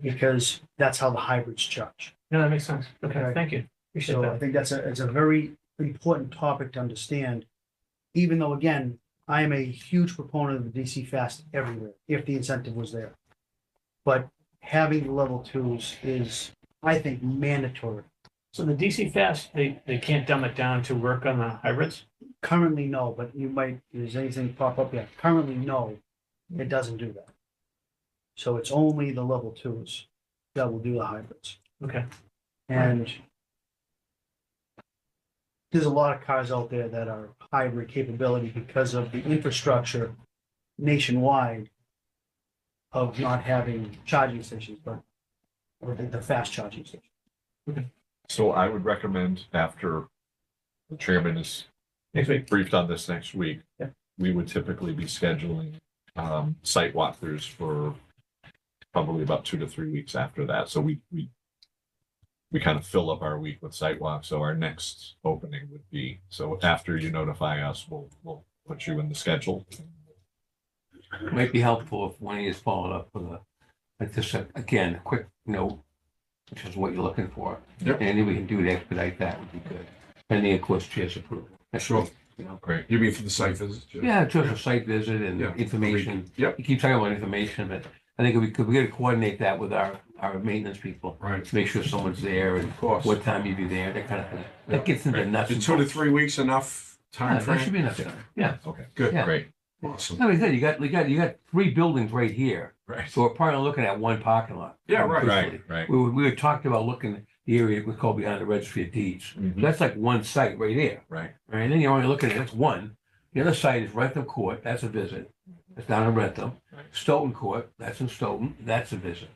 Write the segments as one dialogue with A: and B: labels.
A: because that's how the hybrids charge.
B: No, that makes sense. Okay,
A: Okay.
B: thank you. Appreciate
A: So
B: that.
A: I think that's a, it's a very important topic to understand. Even though, again, I am a huge proponent of the DC fast everywhere, if the incentive was there. But having the level twos is, I think, mandatory.
B: So the DC fast, they, they can't dumb it down to work on the hybrids?
A: Currently, no, but you might, does anything pop up yet? Currently, no, it doesn't do that. So it's only the level twos that will do the hybrids.
B: Okay.
A: And there's a lot of cars out there that are hybrid capability because of the infrastructure nationwide of not having charging stations, but or the, the fast charging stations.
C: So I would recommend after the chairman is
B: Next week.
C: briefed on this next week.
B: Yeah.
C: We would typically be scheduling um site walkthroughs for probably about two to three weeks after that. So we we we kind of fill up our week with site walks. So our next opening would be, so after you notify us, we'll we'll put you in the schedule.
D: Might be helpful if one of you is followed up with a, like just a- again, a quick note, which is what you're looking for.
C: Yep.
D: Anything we can do to expedite that would be good. Pending, of course, chair's approval.
E: Sure.
D: You know?
C: Great.
E: You mean for the site visit? Jim?
D: Yeah, just a site visit and
E: Yeah.
D: information.
E: Yep.
D: You keep talking about information, but I think if we could, we gotta coordinate that with our, our maintenance people.
E: Right,
D: Make sure someone's there and
E: of course.
D: what time you'd be there, that kind of thing.
E: Yeah.
D: That gets into nuts.
E: Is
D: and
E: two to
D: bolts.
E: three weeks enough
D: Yeah,
E: time
D: that should
E: frame?
D: be enough time. Yeah.
C: Okay,
E: Good,
D: Yeah.
C: great.
E: awesome,
D: Like I said, you got, you got, you got three buildings right here.
E: right.
D: So we're probably looking at one parking lot.
E: Yeah, right.
C: Right, right.
D: We, were- we had talked about looking at the area we call behind the registry of deeds.
C: Mhm,
D: That's like one site right there.
C: Right.
D: Right? And then you're only looking at, that's one. The other site is Rentham Court. That's a visit. That's down in Rentham.
C: Right.
D: Stoughton Court. That's in Stoughton. That's a visit.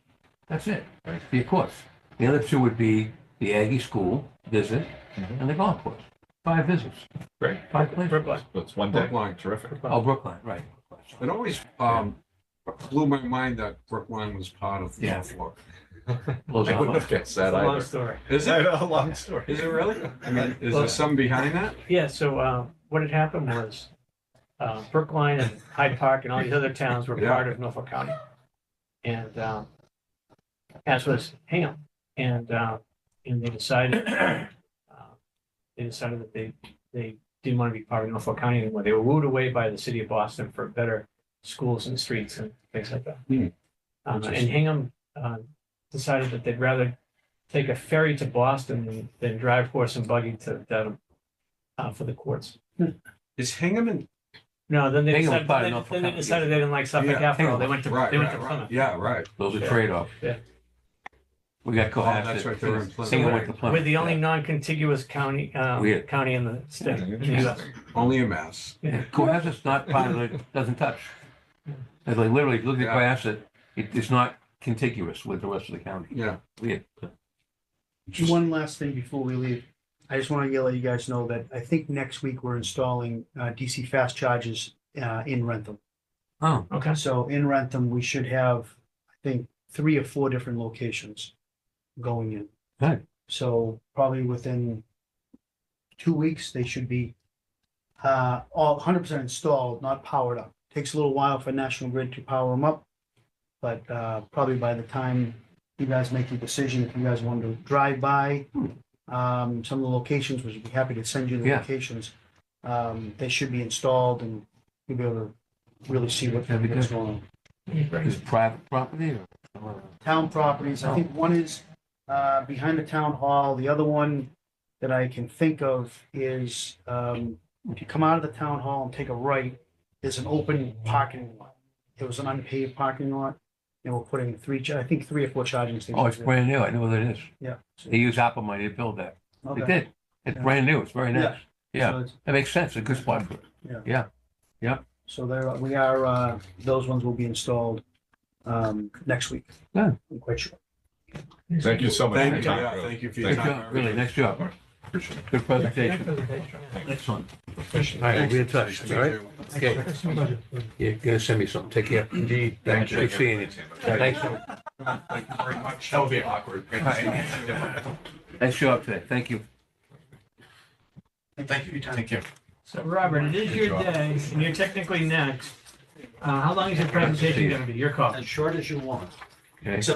D: That's it.
C: Right.
D: The courts. The other two would be the Aggie School visit
C: Mhm.
D: and the golf course. Five visits.
C: Great.
D: Five places.
B: Brookline.
C: That's one day.
E: Brookline.
C: Terrific.
D: Oh, Brookline, right.
E: It always, um, blew my mind that Brookline was part of
D: Yeah.
E: Norfolk.
D: Blows
C: I
D: our
C: wouldn't
D: mind.
C: have guessed that
B: It's a long
C: either.
B: story.
E: Is
C: I
E: it,
C: know, a long story.
E: is it really? I mean, is
B: Well-
E: there some behind that?
B: Yeah, so, uh, what had happened was, uh, Brookline and Hyde Park and all these other towns were
E: Yeah.
B: part of Norfolk County. And, um, as was Hingham, and, uh, and they decided, uh, they decided that they, they didn't want to be part of Norfolk County anymore. They were wooed away by the city of Boston for better schools and streets and things like that.
E: Hmm.
B: Um, and Hingham, uh, decided that they'd rather take a ferry to Boston than, than drive horse and buggy to Dedham, uh, for the courts.
E: Is Hingham in?
B: No, then they
D: Hingham was
B: decided,
D: part of
B: then
D: Norfolk
B: then they
D: County.
B: decided they didn't like Suffolk
E: Yeah,
B: after all. They
D: Hingham.
B: went to,
E: Right,
B: they went to
E: right, right.
B: Plymouth.
E: Yeah, right.
D: Those are
B: Yeah.
D: trade-offs.
B: Yeah.
D: We got Cohasset.
E: that's right, they were in Plymouth.
D: Hingham went to Plymouth.
B: We're the only
D: Yeah.
B: non-contiguous county, um,
D: Weird.
B: county in the state. in the US.
C: Interesting.
E: Only a mess.
D: Yeah, Cohasset's not part of the, doesn't touch. It's like literally, if you look at
E: Yeah.
D: Cohasset, it is not contiguous with the rest of the county.
E: Yeah.
D: Weird.
A: One last thing before we leave. I just want to let you guys know that I think next week we're installing uh, DC fast charges uh, in Rentham.
D: Oh,
B: Okay.
A: So in Rentham, we should have, I think, three or four different locations going in.
D: Right.
A: So probably within two weeks, they should be uh, all hundred percent installed, not powered up. Takes a little while for National Grid to power them up. But uh, probably by the time you guys make your decision, if you guys want to drive by um, some of the locations, which we'd be happy to send you the
D: Yeah.
A: locations. Um, they should be installed and you'll be able to really see what
D: That'd be
A: what's going on.
D: is it private property Oh, or?
A: Town properties, I think one is uh, behind the town hall, the other one that I can think of is um, if you come out of the town hall and take a right, there's an open parking lot. It was an unpaved parking lot, and we're putting three, cha- I think three or four charging stations.
D: Oh, it's
A: there.
D: brand new. I know what it is.
A: Yeah.
D: They use Apple money to build that. They
A: Okay.
D: did. It's
A: Yeah.
D: brand new. It's very
A: Yeah.
D: nice. Yeah,
A: So it's-
D: that makes sense. A good spot for it.
A: So there, we are, uh, those ones will be installed um, next week.
D: Yeah.
A: I'm quite sure.
C: Thank you so much. for
E: Thank
C: your
E: you,
C: time,
E: yeah,
C: really.
E: thank you for your
D: Good
C: Thank
E: time.
D: job, really. Nice job.
C: Appreciate it.
D: Good presentation. Excellent. All right, we'll be in touch, all right? Okay. You're gonna send me something. Take care. Indeed. Thank you. Good seeing you. Thanks.
E: Thank you very much. That would be awkward.
D: Nice job today. Thank you.
A: Thank you for your time.
B: So Robert, it is your
C: Good job.
B: day and you're technically next. Uh, how long is your
D: See
B: presentation
D: you.
B: gonna be? Your call.
A: As short as you want.
D: Okay.